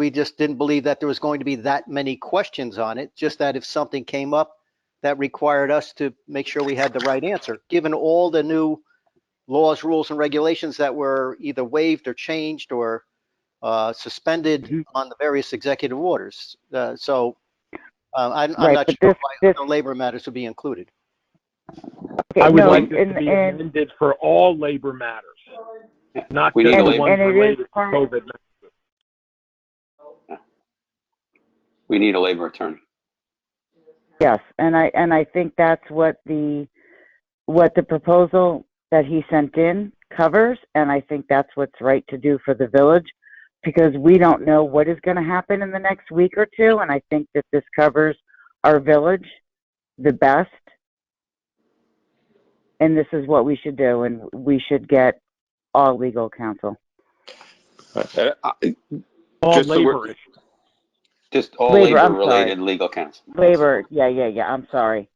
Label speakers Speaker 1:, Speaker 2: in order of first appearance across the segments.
Speaker 1: We just didn't believe that there was going to be that many questions on it, just that if something came up that required us to make sure we had the right answer, given all the new laws, rules, and regulations that were either waived or changed or uh, suspended
Speaker 2: Mhm.
Speaker 3: Mm-hmm.
Speaker 1: on the various executive orders. Uh, So uh, I'm I'm
Speaker 3: Right,
Speaker 1: not
Speaker 3: but
Speaker 1: sure
Speaker 3: this-
Speaker 1: why
Speaker 3: this-
Speaker 1: the labor matters would be included.
Speaker 3: Okay,
Speaker 2: I would
Speaker 3: no,
Speaker 2: like this
Speaker 3: and-
Speaker 2: to be
Speaker 3: and-
Speaker 2: amended for all labor matters, not
Speaker 4: We
Speaker 2: just
Speaker 4: need a
Speaker 2: the
Speaker 4: labor-
Speaker 2: ones
Speaker 3: And it is
Speaker 2: related to
Speaker 3: part-
Speaker 2: COVID.
Speaker 4: We need a labor attorney.
Speaker 3: Yes, and I, and I think that's what the, what the proposal that he sent in covers, and I think that's what's right to do for the village, because we don't know what is gonna happen in the next week or two, and I think that this covers our village the best. And this is what we should do, and we should get all legal counsel.
Speaker 4: Uh, I-
Speaker 2: All
Speaker 4: Just the
Speaker 2: labor
Speaker 4: word-
Speaker 2: issues.
Speaker 4: Just all
Speaker 3: Labor, I'm
Speaker 4: labor-related legal counsel.
Speaker 3: Labor, yeah, yeah, yeah, I'm sorry.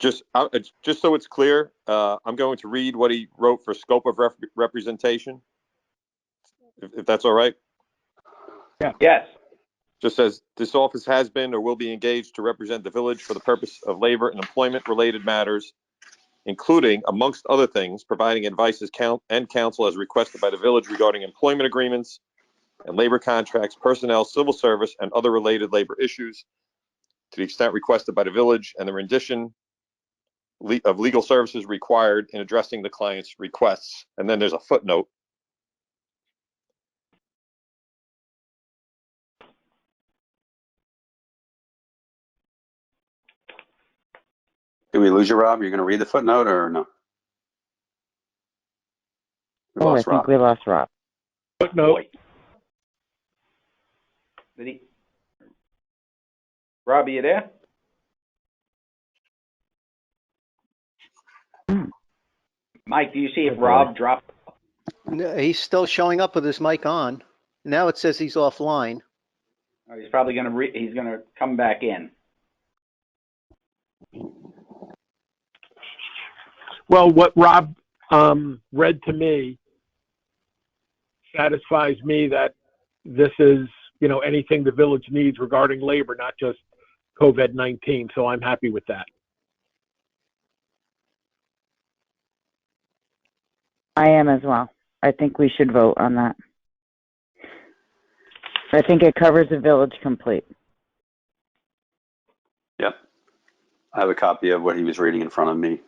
Speaker 5: Just, uh, it's- just so it's clear, uh, I'm going to read what he wrote for scope of rep- representation. If, if that's all right?
Speaker 4: Yes.
Speaker 5: Just says, this office has been or will be engaged to represent the village for the purpose of labor and employment-related matters, including, amongst other things, providing advice as coun and counsel as requested by the village regarding employment agreements and labor contracts, personnel, civil service, and other related labor issues to the extent requested by the village and the rendition le- of legal services required in addressing the client's requests. And then there's a footnote.
Speaker 4: Did we lose you, Rob? You're going to read the footnote or no? We
Speaker 3: Oh, I
Speaker 4: lost
Speaker 3: think
Speaker 4: Rob.
Speaker 3: we lost Rob.
Speaker 2: Footnote,
Speaker 6: Did he? Rob, are you there? Mike, do you see if Rob dropped?
Speaker 1: No, He's still showing up with his mic on. Now it says he's offline.
Speaker 6: Or Oh, he's probably gonna re, he's gonna come back in.
Speaker 2: well, what Rob, um, read to me satisfies me that this is, you know, anything the village needs regarding labor, not just COVID-19, so I'm happy with that.
Speaker 3: I am as well. I think we should vote on that. I think it covers the village complete.
Speaker 4: Yep. I have a copy of what he was reading in front of me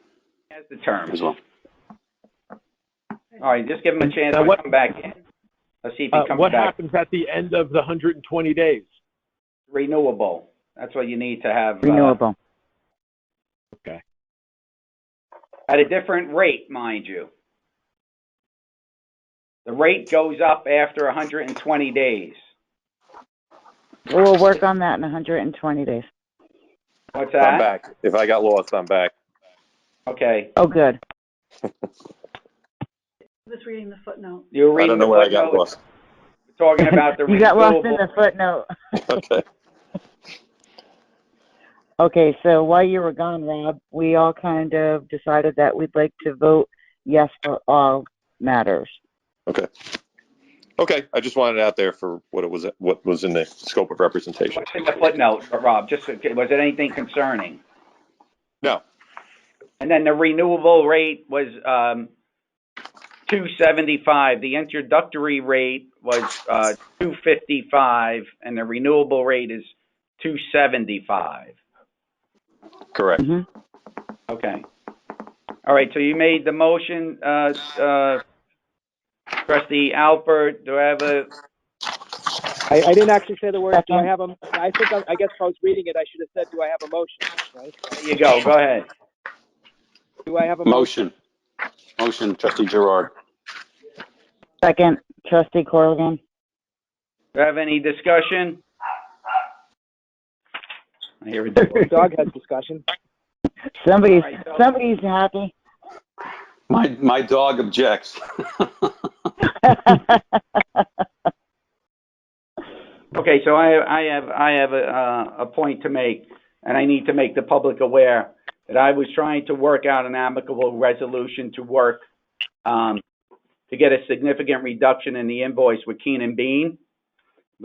Speaker 6: Has the terms.
Speaker 4: as well.
Speaker 6: All right, just give him a chance
Speaker 2: Now
Speaker 6: to
Speaker 2: what-
Speaker 6: come back in. Let's see if
Speaker 2: Uh,
Speaker 6: he comes
Speaker 2: what
Speaker 6: back.
Speaker 2: happens at the end of the 120 days?
Speaker 6: Renewable. That's what you need to have. uh,
Speaker 3: Renewable.
Speaker 6: At a different rate, mind you. The rate goes up after hundred and twenty days.
Speaker 3: We'll work on that in 120 days.
Speaker 6: What's
Speaker 5: I'm
Speaker 6: that?
Speaker 5: back. If I got lost, I'm back.
Speaker 6: Okay,
Speaker 3: Oh, good.
Speaker 7: Just reading the footnote.
Speaker 6: you're
Speaker 5: I don't
Speaker 6: reading the
Speaker 5: know where I got
Speaker 6: footnote.
Speaker 5: lost.
Speaker 6: Talking about the
Speaker 3: You got lost in
Speaker 6: renewable.
Speaker 3: the footnote.
Speaker 5: Okay.
Speaker 3: Okay, so while you were gone, Rob, we all kind of decided that we'd like to vote yes for all matters.
Speaker 5: Okay, I just wanted it out there for what it was, what was in the scope of representation.
Speaker 6: What's in the footnote, Rob? Just, was it anything concerning?
Speaker 5: No.
Speaker 6: And then the renewable rate was, um, two seventy-five. The introductory rate was, uh, two fifty-five, and the renewable rate is two seventy-five.
Speaker 5: Correct.
Speaker 3: hmm
Speaker 6: Okay. All right, so you made the motion, uh, uh, trustee Alpert, do I have a,
Speaker 8: I, I didn't actually say the word. Do I
Speaker 3: Second.
Speaker 8: have a? I think I, I guess if I was reading it, I should have said, "Do I have a motion?" Right?
Speaker 6: there you go, go ahead.
Speaker 8: Do I have a motion?
Speaker 4: Motion. Motion, trustee Gerard.
Speaker 3: Second, trustee Corrigan.
Speaker 6: Do I have any discussion? I hear a dog.
Speaker 8: Dog has discussion.
Speaker 3: Somebody's
Speaker 6: All right, so-
Speaker 3: somebody's happy.
Speaker 4: My, my dog objects.
Speaker 6: Okay, so I, I have, I have a, uh, a point to make, and I need to make the public aware that I was trying to work out an amicable resolution to work, um, to get a significant reduction in the invoice with Keenan Bean.